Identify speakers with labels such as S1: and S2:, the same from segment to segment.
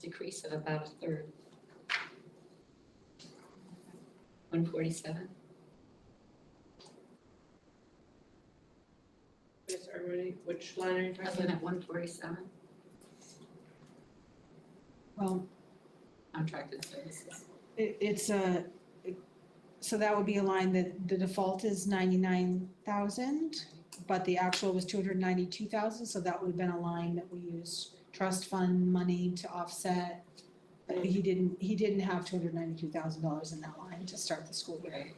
S1: decrease of about a third. One forty-seven,
S2: Yes, everybody, which line are you talking
S1: wasn't
S2: about?
S1: it one forty-seven,
S3: Well,
S1: contracted services?
S3: it, it's a, it- so that would be a line that the default is ninety-nine thousand, but the actual was two hundred ninety-two thousand, so that would have been a line that we used trust fund money to offset. But he didn't, he didn't have two hundred ninety-two thousand dollars in that line to start the school year.
S1: Right.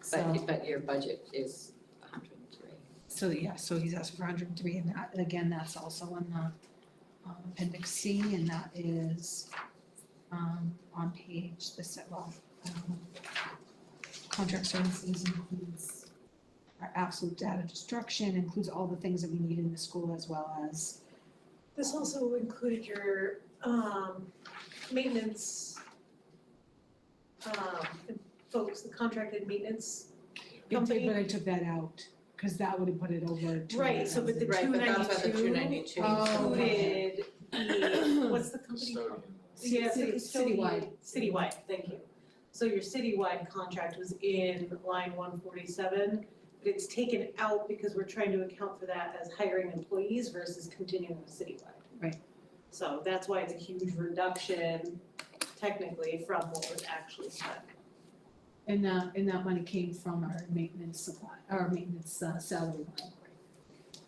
S3: So,
S1: But, but your budget is hundred and three.
S3: so yeah, so he's asking for hundred and three, and that, and again, that's also on the um, appendix C, and that is um on page, the set, well, um, contract services includes our absolute data destruction, includes all the things that we need in the school as well as,
S4: This also included your um maintenance um folks, the contracted maintenance.
S3: but
S4: Company-
S3: I took that out, cause that would have put it over two
S4: Right, so but the
S2: Right,
S4: two
S2: but that's why the 292
S4: ninety-two
S3: Oh,
S4: included the, what's the company called?
S5: custodian.
S4: Yeah,
S3: City-
S4: it's citywide,
S3: citywide.
S4: citywide, thank you. So your citywide contract was in line one forty-seven, but it's taken out because we're trying to account for that as hiring employees versus continuing with citywide.
S3: Right.
S4: So that's why it's a huge reduction technically from what was actually spent.
S3: And that, and that money came from our maintenance supply, our maintenance uh, salary line.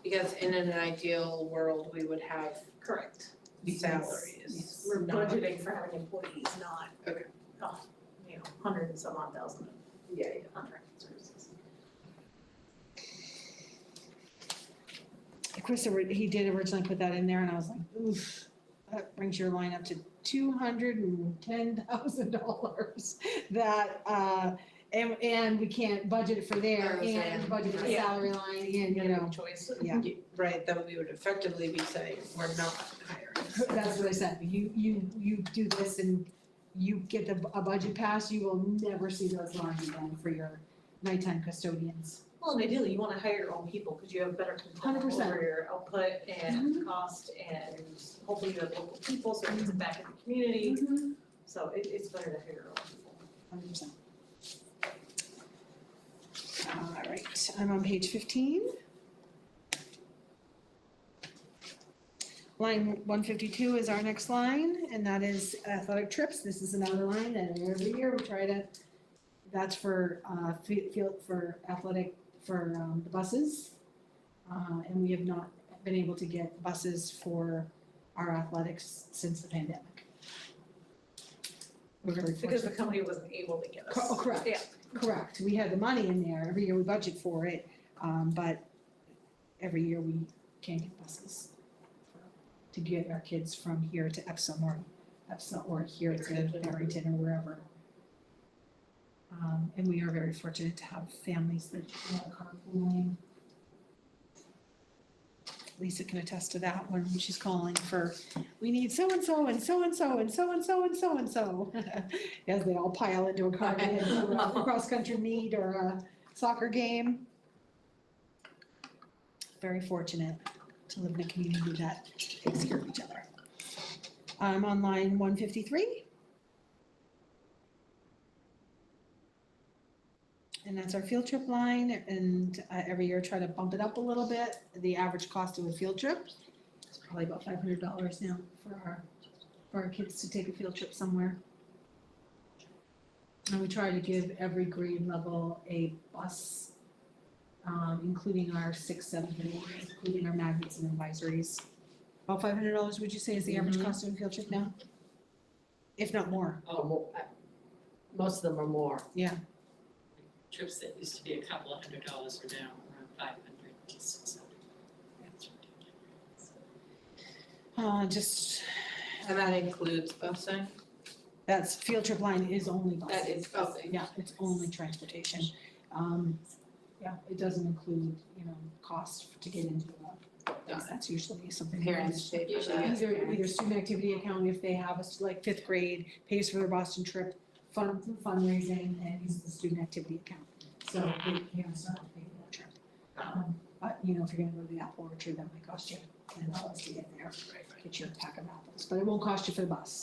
S2: Because in an ideal world, we would have
S4: Correct.
S2: salaries.
S4: We're
S2: not-
S4: budgeting for having employees, not
S2: Okay.
S4: oh, you know, hundred and some odd thousand of
S2: Yeah,
S4: contracted services.
S3: Chris, ori- he did originally put that in there and I was like, oof, that brings your line up to two hundred and ten thousand dollars. That, uh, and, and we can't budget it for there
S2: I was
S3: and
S2: saying,
S3: budget the
S4: yeah.
S3: salary line and, you know,
S2: choice.
S3: yeah.
S2: Right, then we would effectively be saying, we're not hiring.
S3: That's what I said, you, you, you do this and you get the, a budget pass, you will never see those lines again for your nighttime custodians.
S4: Well, and ideally, you wanna hire your own people, cause you have better control
S3: 100%.
S4: over your output and cost and hopefully you have local people, so it gets it back in the community. So it, it's better to hire your own people.
S3: Hundred percent. All right, I'm on page fifteen. Line one fifty-two is our next line, and that is athletic trips. This is another line that every year we try to, that's for, uh, fe- field, for athletic, for, um, the buses. Uh, and we have not been able to get buses for our athletics since the pandemic. We're very
S4: Because the
S3: fortunate.
S4: company wasn't able to get us.
S3: Cor- oh, correct.
S4: Yeah.
S3: Correct, we had the money in there, every year we budget for it, um, but every year we can't get buses to get our kids from here to Epsom or Epsom or here to Barrington or wherever. Um, and we are very fortunate to have families that want carpooling. Lisa can attest to that when she's calling for, we need so-and-so and so-and-so and so-and-so and so-and-so. As they all pile into a car to head to a cross-country meet or a soccer game. Very fortunate to live in a community that takes care of each other. I'm on line one fifty-three. And that's our field trip line, and uh, every year try to bump it up a little bit. The average cost of a field trip is probably about five hundred dollars now for our, for our kids to take a field trip somewhere. And we try to give every grade level a bus, um, including our six, seven, and eight, including our magnets and advisories. Mm-hmm. About five hundred dollars, would you say is the average
S2: Mhm.
S3: cost of a field trip now? If not more,
S2: Oh, mo- uh, most of them are more.
S6: trips that used to be a couple of hundred dollars are now around five hundred to six hundred. That's ridiculous.
S3: uh, just,
S2: And that includes busing?
S3: that's, field trip line is only buses.
S2: That is busing.
S3: Yeah, it's only transportation. Um, yeah, it doesn't include, you know, cost to get into the,
S2: Got
S3: that's usually something.
S2: Parents pay for
S3: that
S2: that.
S3: Either, either student activity account, if they have a, stu- like fifth grade, pays for their Boston trip, fund, fundraising, and uses the student activity account. So the parents don't have to pay for that trip. Um, but, you know, if you're gonna go to the apple orchard, that might cost you ten dollars to get there, get you a pack of apples, but it won't cost you for the bus.